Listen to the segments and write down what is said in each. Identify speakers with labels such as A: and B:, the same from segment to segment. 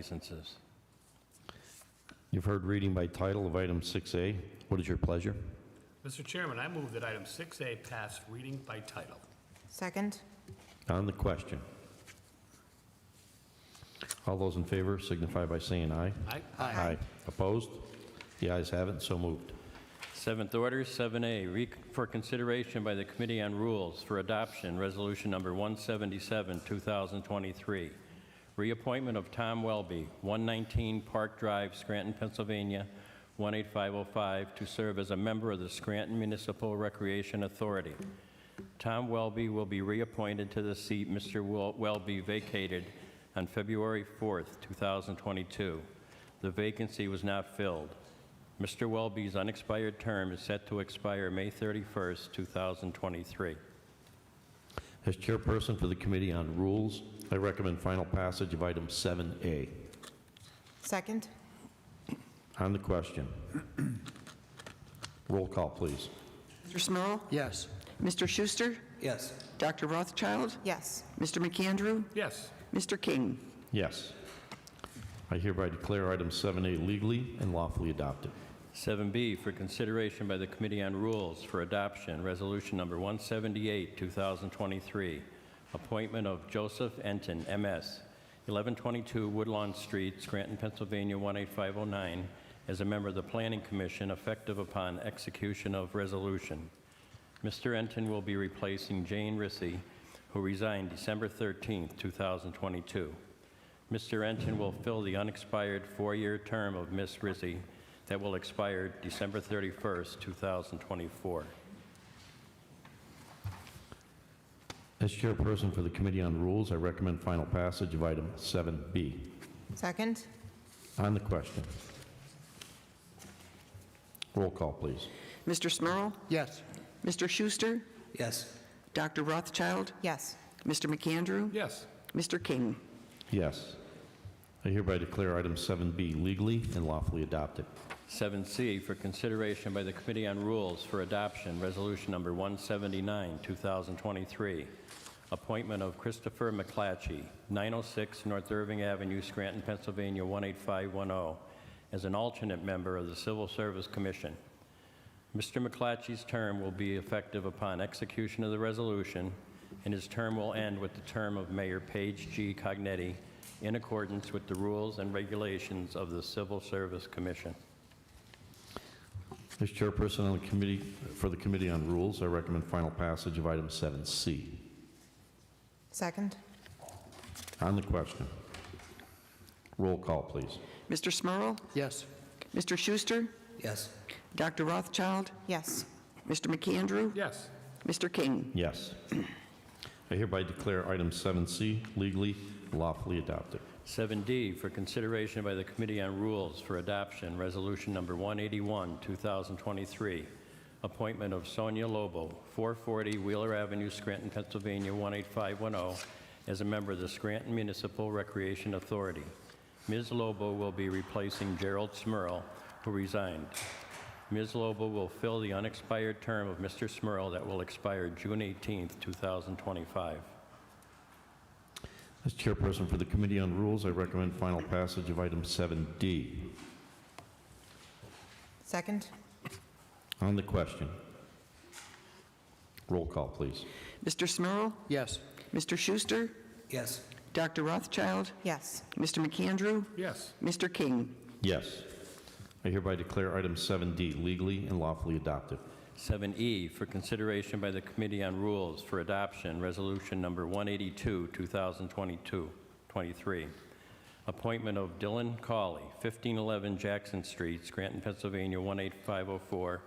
A: licenses.
B: You've heard reading by title of item 6A. What is your pleasure?
C: Mr. Chairman, I move that item 6A pass reading by title.
D: Second?
B: On the question. All those in favor signify by saying aye.
C: Aye.
B: Opposed? The ayes have it, and so moved.
A: Seventh order, 7A, re- for consideration by the Committee on Rules for Adoption, Resolution Number 177, 2023, reappointment of Tom Welby, 119 Park Drive, Scranton, Pennsylvania, 18505, to serve as a member of the Scranton Municipal Recreation Authority. Tom Welby will be reappointed to the seat Mr. Wel- Welby vacated on February 4th, 2022. The vacancy was not filled. Mr. Welby's unexpired term is set to expire May 31st, 2023.
B: As chairperson for the Committee on Rules, I recommend final passage of item 7A.
D: Second?
B: On the question. Roll call, please.
E: Mr. Smurl?
F: Yes.
E: Mr. Schuster?
F: Yes.
E: Dr. Rothschild?
D: Yes.
E: Mr. McAndrew?
C: Yes.
E: Mr. King?
B: Yes. I hereby declare item 7A legally and lawfully adopted.
A: 7B for consideration by the Committee on Rules for Adoption, Resolution Number 178, 2023, appointment of Joseph Enton, MS, 1122 Woodlawn Street, Scranton, Pennsylvania, 18509, as a member of the Planning Commission effective upon execution of resolution. Mr. Enton will be replacing Jane Rissy, who resigned December 13, 2022. Mr. Enton will fill the unexpired four-year term of Ms. Rissy that will expire December 31st, 2024.
B: As chairperson for the Committee on Rules, I recommend final passage of item 7B.
D: Second?
B: On the question. Roll call, please.
E: Mr. Smurl?
F: Yes.
E: Mr. Schuster?
F: Yes.
E: Dr. Rothschild?
D: Yes.
E: Mr. McAndrew?
C: Yes.
E: Mr. King?
B: Yes. I hereby declare item 7B legally and lawfully adopted.
A: 7C for consideration by the Committee on Rules for Adoption, Resolution Number 179, 2023, appointment of Christopher McClatchy, 906 North Irving Avenue, Scranton, Pennsylvania, 18510, oh, as an alternate member of the Civil Service Commission. Mr. McClatchy's term will be effective upon execution of the resolution, and his term will end with the term of Mayor Page G. Cognetti in accordance with the rules and regulations of the Civil Service Commission.
B: As chairperson on the committee, for the Committee on Rules, I recommend final passage of item 7C.
D: Second?
B: On the question. Roll call, please.
E: Mr. Smurl?
F: Yes.
E: Mr. Schuster?
F: Yes.
E: Dr. Rothschild?
D: Yes.
E: Mr. McAndrew?
C: Yes.
E: Mr. King?
B: Yes. I hereby declare item 7C legally and lawfully adopted.
A: 7D for consideration by the Committee on Rules for Adoption, Resolution Number 181, 2023, appointment of Sonia Lobo, 440 Wheeler Avenue, Scranton, Pennsylvania, 18510, oh, as a member of the Scranton Municipal Recreation Authority. Ms. Lobo will be replacing Gerald Smurl, who resigned. Ms. Lobo will fill the unexpired term of Mr. Smurl that will expire June 18, 2025.
B: As chairperson for the Committee on Rules, I recommend final passage of item 7D.
D: Second?
B: On the question. Roll call, please.
E: Mr. Smurl?
F: Yes.
E: Mr. Schuster?
F: Yes.
E: Dr. Rothschild?
D: Yes.
E: Mr. McAndrew?
C: Yes.
E: Mr. King?
B: Yes. I hereby declare item 7D legally and lawfully adopted.
A: 7E E, for consideration by the Committee on Rules for Adoption, Resolution Number 182, 2022, 23. Appointment of Dylan Cawley, 1511 Jackson Street, Scranton, Pennsylvania, 18504,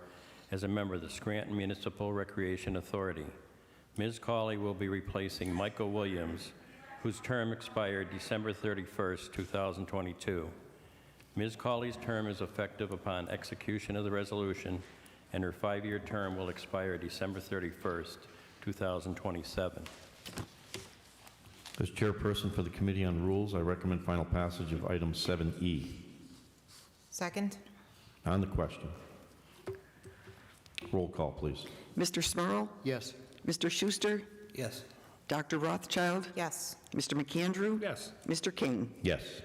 A: as a member of the Scranton Municipal Recreation Authority. Ms. Cawley will be replacing Michael Williams, whose term expired December 31st, 2022. Ms. Cawley's term is effective upon execution of the resolution, and her five-year term will expire December 31st, 2027.
B: As chairperson for the Committee on Rules, I recommend final passage of item 7E.
D: Second?
B: On the question. Roll call, please.
E: Mr. Smurl?
F: Yes.
E: Mr. Schuster?
F: Yes.
E: Dr. Rothschild?
D: Yes.
E: Mr. McAndrew?
C: Yes.
E: Mr. King?
B: Yes.